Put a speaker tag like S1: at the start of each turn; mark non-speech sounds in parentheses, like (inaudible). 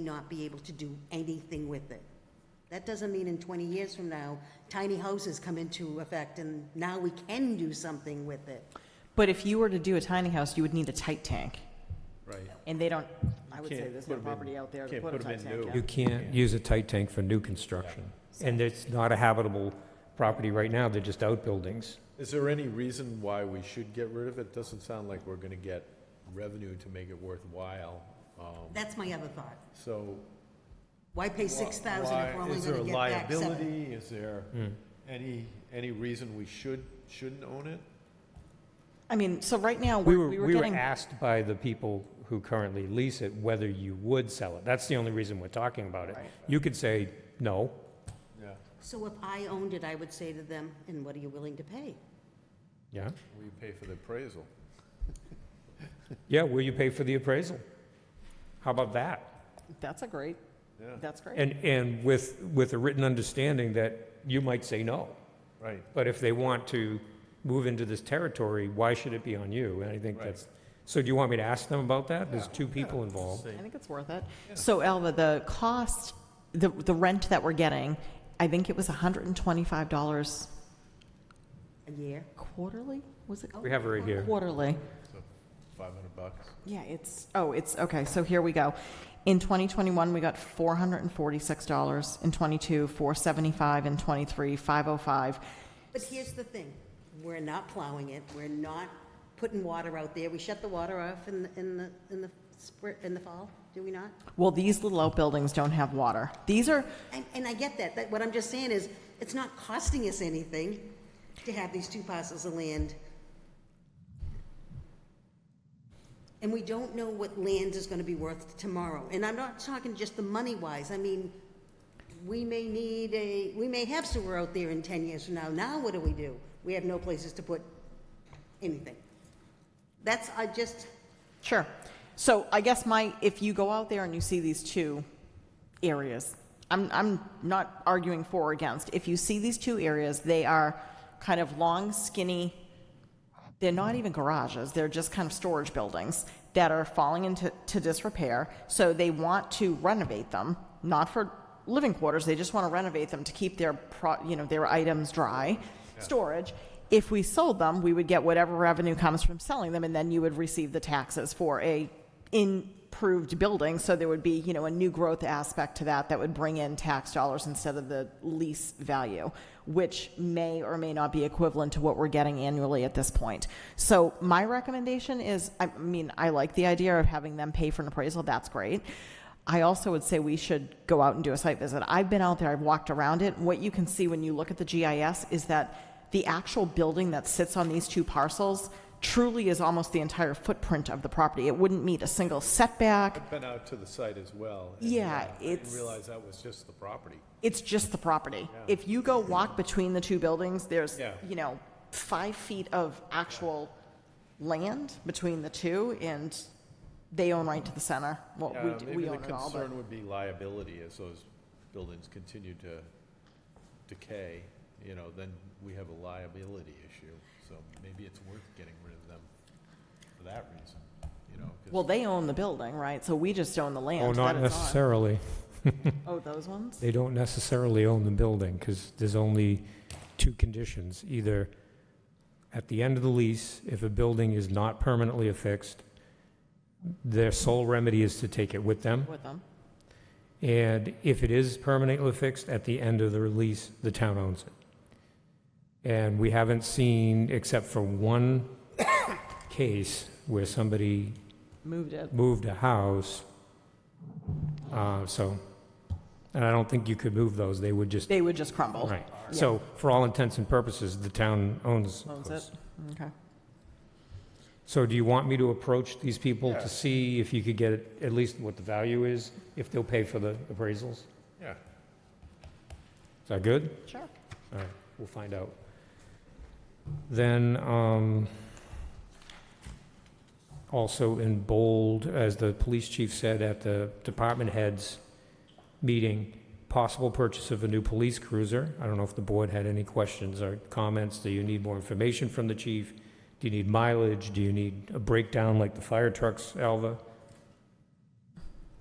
S1: not be able to do anything with it. That doesn't mean in 20 years from now, tiny houses come into effect and now we can do something with it.
S2: But if you were to do a tiny house, you would need a tight tank,
S3: Right.
S2: and they don't, I would say
S3: can't
S2: there's no
S3: put 'em in-
S2: property out there to
S3: can't
S2: put a
S3: put 'em
S2: tight
S3: in
S2: tank
S3: new.
S2: in.
S4: You can't use a tight tank for new construction. And it's not a habitable property right now, they're just outbuildings.
S3: Is there any reason why we should get rid of it? Doesn't sound like we're gonna get revenue to make it worthwhile. Um,
S1: That's my other thought.
S3: So.
S1: Why pay
S3: wh-
S1: 6,000 if
S3: why-
S1: we're only
S3: is there
S1: going to
S3: a
S1: get back seven?
S3: liability? Is there
S4: Hmm.
S3: any, any reason we should, shouldn't own it?
S2: I mean, so right now,
S4: We
S2: we're-
S4: were,
S2: we were
S4: we were
S2: getting,
S4: asked by the people who currently lease it whether you would sell it. That's the only reason we're talking about it.
S2: Right.
S4: You could say, no,
S3: Yeah.
S1: So if I owned it, I would say to them, and what are you willing to pay?
S4: yeah,
S3: Will you pay for the appraisal?
S4: yeah, will you pay for the appraisal? How about that?
S2: that's a great,
S3: Yeah,
S2: that's great.
S4: And, and with, with a written understanding that you might say no.
S3: right.
S4: But if they want to move into this territory, why should it be on you? And I think
S3: Right.
S4: that's, so do you want me to ask them about that? There's two people involved.
S2: I think it's worth it. So Alva, the cost, the, the rent that we're getting, I think it was hundred and twenty-five dollars
S1: A year?
S2: quarterly, was it?
S4: We have it right here.
S2: Quarterly.
S3: So five hundred bucks.
S2: Yeah, it's, oh, it's, okay, so here we go. In 2021, we got $446, in '22, 475, in oh '23, 505.
S1: But here's the thing, we're not plowing it, we're not putting water out there, we shut the water off in, the- in the, in the spring, in the fall, do we not?
S2: Well, these little outbuildings don't have water. These are,
S1: And, and I get that, that, what I'm just saying is, it's not costing us anything to have these two parcels of land. And we don't know what land is gonna be worth tomorrow, and I'm not talking just the money wise, I mean, we may need a, we may have sewer out there in ten years from now, now what do we do? We have no places to put anything. That's, I just,
S2: sure. So I guess my, if you go out there and you see these two areas, I'm, I'm not arguing for or against. If you see these two areas, they are kind of long, skinny, they're not even garages, they're just kind of storage buildings that are falling into to disrepair. So they want to renovate them, not for living quarters, they just want to renovate them to keep their, pro, you know, their items dry, storage. If we sold them, we would get whatever revenue comes from selling them, and then you would receive the taxes for a improved building. So there would be, you know, a new growth aspect to that that would bring in tax dollars instead of the lease value, which may or may not be equivalent to what we're getting annually at this point. So my recommendation is, I mean, I like the idea of having them pay for an appraisal. That's great. I also would say we should go out and do a site visit. I've been out there, I've walked around it. What you can see when you look at the GIS is that the actual building that sits on these two parcels truly is almost the entire footprint of the property. It wouldn't meet a single setback.
S3: I've been out to the site as well. and,
S2: Yeah,
S3: uh, I didn't
S2: it's-
S3: realize that was just the property.
S2: It's just the property. If you go walk between the two buildings, there's,
S3: Yeah.
S2: you know, five feet of actual land between the two, and they own right to the center. Well, Oh, we, do- we own it all,
S3: Maybe the
S2: but
S3: concern would be liability as those buildings continue to decay, you know, then we have a liability issue. So maybe it's worth getting rid of them for that reason, you know, 'cause-
S2: well, they own the building, right? So we just own the land.
S4: Oh, not
S2: that it's on.
S4: necessarily.
S2: Oh, those ones?
S4: They don't necessarily own the building because there's only two conditions. Either at the end of the lease, if a building is not permanently affixed, their sole remedy is to take it with them.
S2: With them.
S4: And if it is permanently fixed, at the end of the release, the town owns it. And we haven't seen, except for one (coughs) case where somebody
S2: Moved it.
S4: moved a house, uh, so, and I don't think you could move those, they would just,
S2: They would just crumble.
S4: right. So for all intents and purposes, the town owns
S2: Owns
S4: those.
S2: it. Okay.
S4: So do you want me to approach these people to see if you could get at least what the value is, if they'll pay for the appraisals?
S3: yeah.
S4: Is that good?
S2: Sure.
S4: All right, we'll find out. Then, um, also in bold, as the police chief said at the department heads meeting, possible purchase of a new police cruiser. I don't know if the board had any questions or comments. Do you need more information from the chief? Do you need mileage? Do you need a breakdown like the fire trucks, Alva?